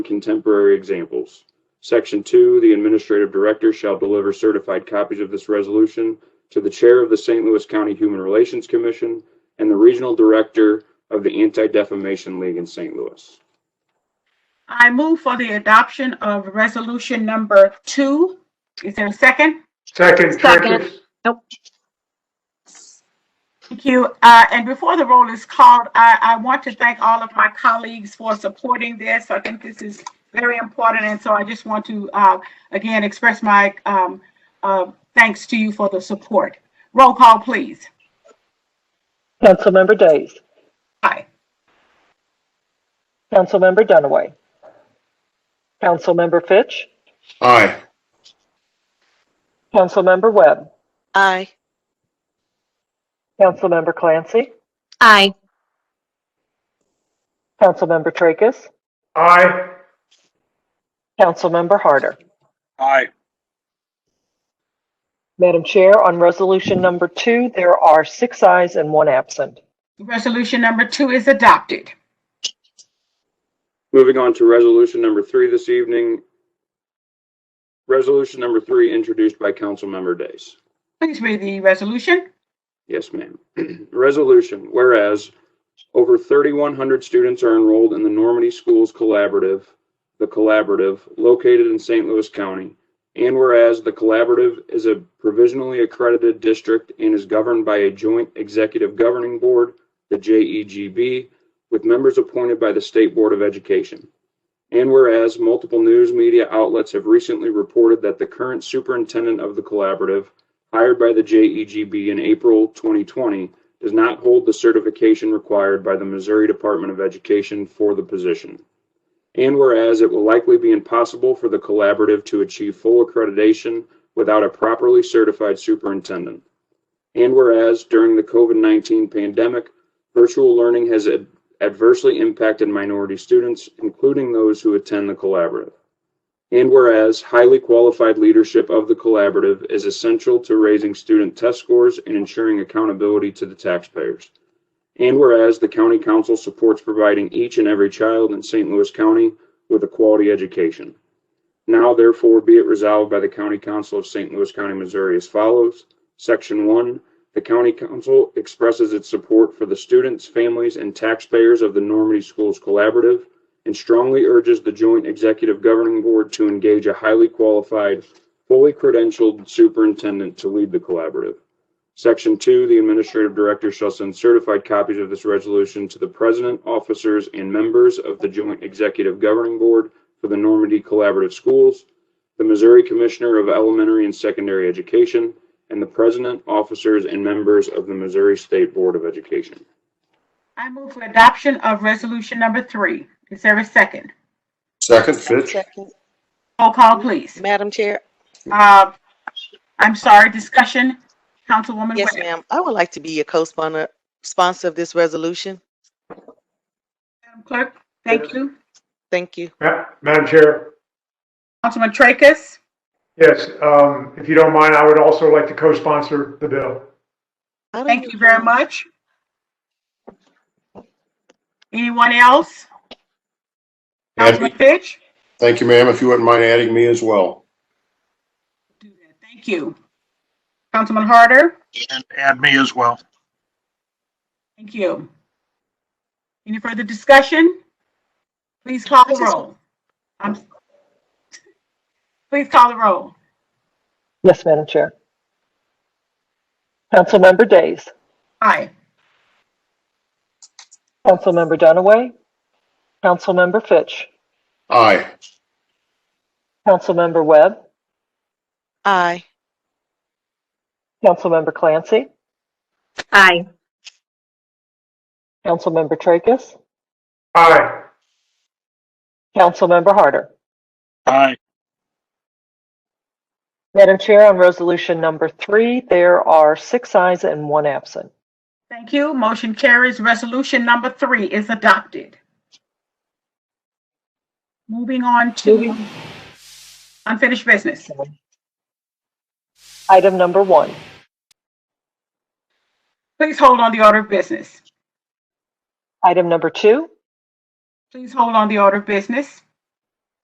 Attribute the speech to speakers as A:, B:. A: contemporary examples. Section two, the administrative director shall deliver certified copies of this resolution to the chair of the St. Louis County Human Relations Commission and the regional director of the Anti-Defamation League in St. Louis.
B: I move for the adoption of resolution number two. Is there a second?
C: Second,
D: Second.
C: Trippitt.
B: Thank you. Uh, and before the roll is called, I, I want to thank all of my colleagues for supporting this. I think this is very important. And so I just want to, uh, again, express my, um, uh, thanks to you for the support. Roll call, please.
E: Councilmember Days.
B: Aye.
E: Councilmember Dunaway. Councilmember Fitch.
C: Aye.
E: Councilmember Webb.
D: Aye.
E: Councilmember Clancy.
D: Aye.
E: Councilmember Tracus.
C: Aye.
E: Councilmember Harder.
F: Aye.
E: Madam Chair, on resolution number two, there are six ayes and one absent.
B: Resolution number two is adopted.
A: Moving on to resolution number three this evening. Resolution number three introduced by Councilmember Days.
B: Please read the resolution.
A: Yes, ma'am. Resolution, whereas over 3,100 students are enrolled in the Normandy Schools Collaborative, the Collaborative located in St. Louis County, and whereas the Collaborative is a provisionally accredited district and is governed by a joint executive governing board, the JEGB, with members appointed by the State Board of Education. And whereas multiple news media outlets have recently reported that the current superintendent of the Collaborative hired by the JEGB in April 2020 does not hold the certification required by the Missouri Department of Education for the position. And whereas it will likely be impossible for the collaborative to achieve full accreditation without a properly certified superintendent. And whereas during the COVID 19 pandemic, virtual learning has ad- adversely impacted minority students, including those who attend the collaborative. And whereas highly qualified leadership of the collaborative is essential to raising student test scores and ensuring accountability to the taxpayers. And whereas the county council supports providing each and every child in St. Louis County with a quality education. Now therefore be it resolved by the county council of St. Louis County, Missouri as follows. Section one, the county council expresses its support for the students, families, and taxpayers of the Normandy Schools Collaborative and strongly urges the joint executive governing board to engage a highly qualified, fully credentialed superintendent to lead the collaborative. Section two, the administrative director shall send certified copies of this resolution to the president, officers, and members of the joint executive governing board for the Normandy Collaborative Schools, the Missouri Commissioner of Elementary and Secondary Education, and the president, officers, and members of the Missouri State Board of Education.
B: I move for adoption of resolution number three. Is there a second?
C: Second, Fitch.
D: Second.
B: Roll call, please.
D: Madam Chair,
B: Uh, I'm sorry, discussion, Councilwoman
D: yes,
B: Webb.
D: ma'am. I would like to be a co-sponsor, sponsor of this resolution.
B: Madam Clerk, thank you.
D: Thank you.
C: Ma- Madam Chair,
B: Councilman Tracus,
C: yes, um, if you don't mind, I would also like to co-sponsor the bill.
D: I don't
B: thank
D: know
B: you very
D: why.
B: much. Anyone else? Councilman Fitch?
G: Thank you, ma'am. If you wouldn't mind adding me as well.
B: Do that. Thank you. Councilman Harder?
F: And add me as well.
B: Thank you. Any further discussion? Please call the roll. I'm. Please call the roll.
E: Yes, Madam Chair. Councilmember Days.
B: Aye.
E: Councilmember Dunaway. Councilmember Fitch.
G: Aye.
E: Councilmember Webb.
D: Aye.
E: Councilmember Clancy.
D: Aye.
E: Councilmember Tracus.
C: Aye.
E: Councilmember Harder.
F: Aye.
E: Madam Chair, on resolution number three, there are six ayes and one absent.
B: Thank you. Motion carries. Resolution number three is adopted. Moving on to unfinished business.
E: Item number one,
B: Please hold on the order of business.
E: item number two,
B: Please hold on the order of business.